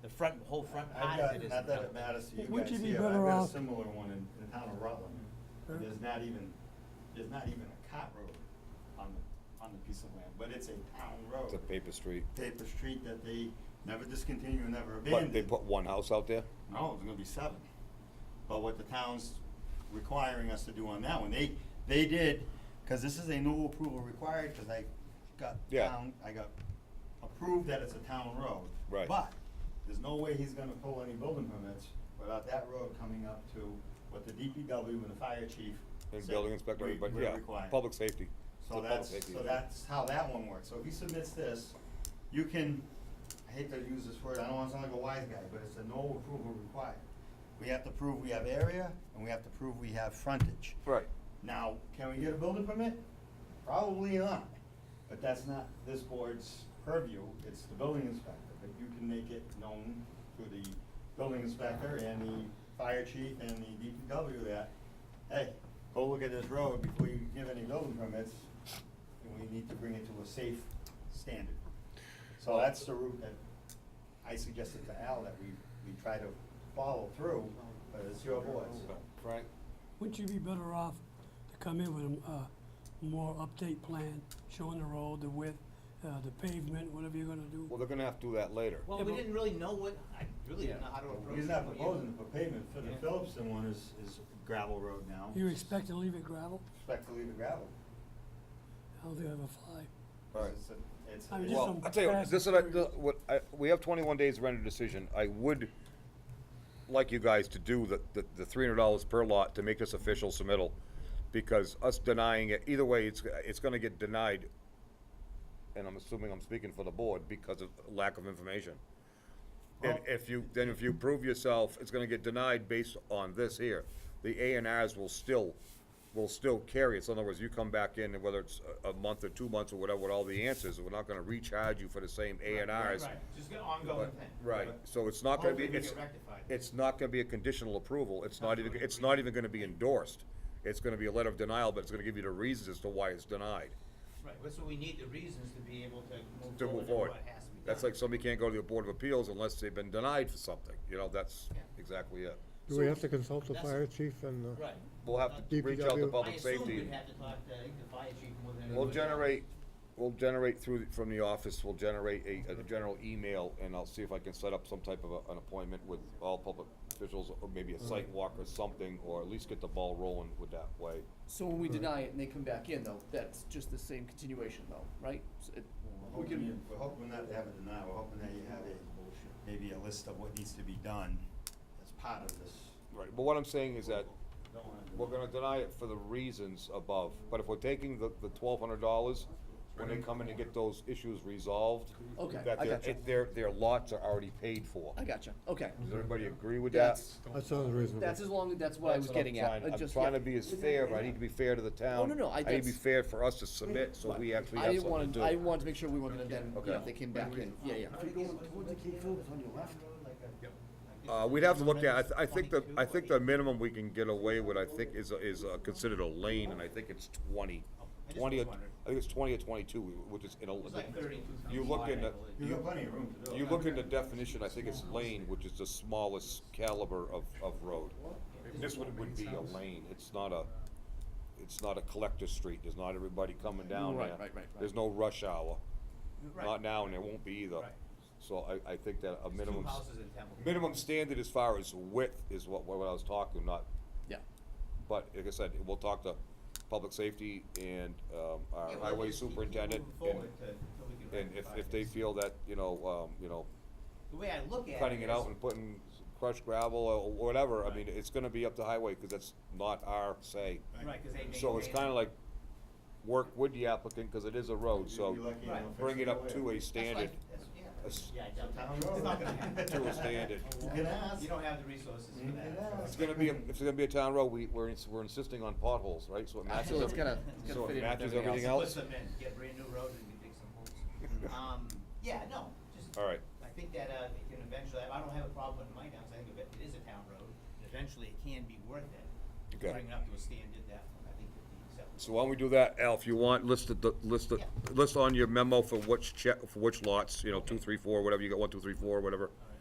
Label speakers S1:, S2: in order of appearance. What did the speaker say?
S1: the front, whole front
S2: I've
S1: part
S2: got,
S1: of it is.
S2: not that it matters to you
S3: Would
S2: guys
S3: you be
S2: here, but I've
S3: better
S2: got a
S3: off-
S2: similar one in, in town of Rutland.
S3: Huh?
S2: There's not even, there's not even a cot road on the, on the piece of land, but it's a town road.
S4: It's a paper street.
S2: Paper street that they never discontinue, and never
S4: But they
S2: abandoned.
S4: put one house out there?
S2: No, it's gonna be seven. But what the town's requiring us to do on that one, they, they did, cause this is a new approval required, cause I got
S4: Yeah.
S2: town, I got approved that it's a town road.
S4: Right.
S2: But, there's no way he's gonna pull any building permits without that road coming up to what the DPW and the fire chief
S4: And
S2: said
S4: building inspector,
S2: we-
S4: everybody,
S2: we're
S4: yeah,
S2: requiring.
S4: public safety. It's a
S2: So
S4: public
S2: that's,
S4: safety
S2: so
S4: issue.
S2: that's how that one works. So if he submits this, you can, I hate to use this word, I don't wanna sound like a wise guy, but it's a no approval required. We have to prove we have area, and we have to prove we have frontage.
S4: Right,
S2: Now, can we get a building permit? Probably not, but that's not this board's purview, it's the building inspector. But you can make it known to the building inspector and the fire chief and the DPW that, hey, go look at this road before you give any building permits, and we need to bring it to a safe standard. So that's the route that I suggested to Al that we, we try to follow through, but it's your board's.
S4: Frank?
S3: Wouldn't you be better off to come in with a, uh, more update plan, showing the road, the width, uh, the pavement, whatever you're gonna do?
S4: Well, they're gonna have to do that later.
S1: Well,
S3: Yeah,
S1: we
S3: but-
S1: didn't really know what, I really didn't know how to approach it.
S2: He's not
S1: but you-
S2: proposing for pavement, for the
S1: Yeah.
S2: Phillipsen one is, is gravel road now.
S3: You expect to leave it gravel?
S2: Expect to leave the gravel.
S3: I don't think I'll ever fly.
S4: Alright.
S2: It's a- it's a-
S3: I'm just
S4: Well,
S3: some
S4: I tell you, what,
S3: fast
S4: this is, what I-
S3: curious.
S4: what, I, we have twenty-one days to render a decision. I would like you guys to do the, the, the three hundred dollars per lot to make this official submittal. Because us denying it, either way, it's, it's gonna get denied, and I'm assuming I'm speaking for the board, because of lack of information. And
S2: Well-
S4: if you, then if you prove yourself, it's gonna get denied based on this here. The A and Rs will still, will still carry it. So in other words, you come back in, and whether it's a, a month or two months or whatever, with all the answers, we're not gonna recharge you for the same A and
S1: Right,
S4: Rs.
S1: Right, just an ongoing
S4: But-
S1: thing.
S4: Right,
S1: But
S4: so it's not gonna be,
S1: hopefully we
S4: it's,
S1: get rectified.
S4: it's not gonna be a conditional approval. It's not even, it's not even gonna be endorsed. It's gonna be a letter of denial, but it's gonna give you the reasons as to why it's denied.
S1: Right, that's what we need, the reasons to be able to move
S4: to
S1: forward
S4: move
S1: and
S4: forward.
S1: what has to be done.
S4: That's like somebody can't go to the Board of Appeals unless they've been denied for something, you know, that's
S1: Yeah.
S4: exactly it.
S5: Do we have to consult the
S1: That's-
S5: fire chief and, uh,
S1: Right.
S4: We'll have to
S5: DPW.
S4: reach out to public
S1: I assume
S4: safety.
S1: we'd have to talk to, I think, the fire chief more than.
S4: We'll
S1: anybody else.
S4: generate, we'll generate through, from the office, we'll generate a, a general email, and I'll see if I can set up some type of a- an appointment with all public officials, or maybe a site
S1: Mm-hmm.
S4: walk or something, or at least get the ball rolling with that way.
S6: So when we deny it and they come back in though, that's just the same continuation though, right? So it-
S2: We're
S6: We
S2: hoping,
S6: can,
S2: you- we're hoping not to have a denial, we're hoping that you have a, maybe a list of what needs to be done as part of this.
S4: Right, but what I'm saying is that
S2: Don't wanna do
S4: we're gonna deny it for the reasons above, but if we're taking the, the twelve hundred dollars, when they come in and get those issues resolved,
S6: Okay,
S4: that
S6: I
S4: their,
S6: gotcha.
S4: if their, their lots are already paid for.
S6: I gotcha, okay.
S4: Does everybody agree with that?
S6: That's,
S5: that sounds reasonable.
S6: that's as long, that's what I
S4: That's
S6: was
S4: what I'm
S6: getting at.
S4: trying-
S6: I just-
S4: I'm trying
S6: yeah.
S4: to be as fair, but I need to be fair to the town.
S6: no, no, I-
S4: need to be
S6: that's-
S4: fair for us to submit, so we actually
S6: I
S4: have
S6: didn't
S4: something
S6: want
S4: to
S6: to,
S4: do.
S6: I wanted to make sure we weren't gonna then, you know,
S4: Okay.
S6: if they came back in, yeah, yeah.
S1: If you're going towards the Cape Phillips on your left.
S4: Uh, we'd have to look at, I, th- I think the, I think the minimum we can get away with, I think, is, is uh, considered a lane, and I think it's twenty.
S1: just
S4: Twenty, or-
S1: was wondering.
S4: I think it's twenty or twenty-two, which is in a.
S1: It's like thirty-two.
S4: You look in the,
S2: it. You got plenty of room to do it.
S4: you look in the definition, I think it's lane, which is the smallest caliber of, of road. This one would be a lane, it's not a, it's not a collector street, there's not everybody coming down there.
S6: Right, right, right, right.
S4: There's no rush hour,
S1: Right.
S4: not now, and there won't be either.
S1: Right.
S4: So I, I think that a
S1: There's
S4: minimum,
S1: Two
S4: s-
S1: houses in Templeton.
S4: minimum standard as far as width is what, what I was talking, not,
S6: Yeah,
S4: but like I said, we'll talk to public safety and, um, our
S1: Yeah, well,
S4: highway
S1: just keep
S4: superintendent.
S1: moving
S4: and-
S1: forward to- till we can
S4: And if,
S1: rectify
S4: if they
S1: this.
S4: feel that, you know, um, you know,
S1: The way I look at it.
S4: cutting it
S1: is-
S4: out and putting crushed gravel or whatever, I
S1: Right.
S4: mean, it's gonna be up to highway, cause that's not our say.
S1: Right, cause they maintain.
S4: So it's kinda
S1: it.
S4: like, work with the applicant, cause it is a road,
S2: You'd
S4: so
S2: be lucky
S1: Right.
S2: enough
S4: bring it up to a
S1: That's
S4: standard,
S1: like- that's- yeah.
S4: a s-
S1: Yeah, I
S2: It's a
S1: doubt
S2: town
S1: that. It's not gonna happen.
S2: road.
S4: to a standard.
S2: You can ask.
S1: You don't have the resources for
S2: You can
S1: that.
S2: ask.
S4: It's gonna be, a- if it's gonna be a town road, we, we're, ins- we're insisting on potholes, right, so it matches,
S6: so it's
S4: every-
S6: gonna, it's
S4: so
S6: gonna
S4: it
S6: fit in with
S4: matches
S6: everything
S4: everything
S6: else.
S4: else. Mm-hmm.
S1: Put some in, get brand new roads and you dig some holes. Um, yeah, no, just.
S4: All right.
S1: I think that, uh, it can eventually, I don't have a problem with my downs, I think it it is a town road, and eventually it can be worth it.
S4: Okay.
S1: Bring it up to a standard that, I think would be acceptable.
S4: So why don't we do that, Al, if you want, list the- the, list the,
S1: Yeah.
S4: list on your memo for which check, for which lots, you know, two, three, four, whatever, you got one, two, three, four, whatever.
S1: All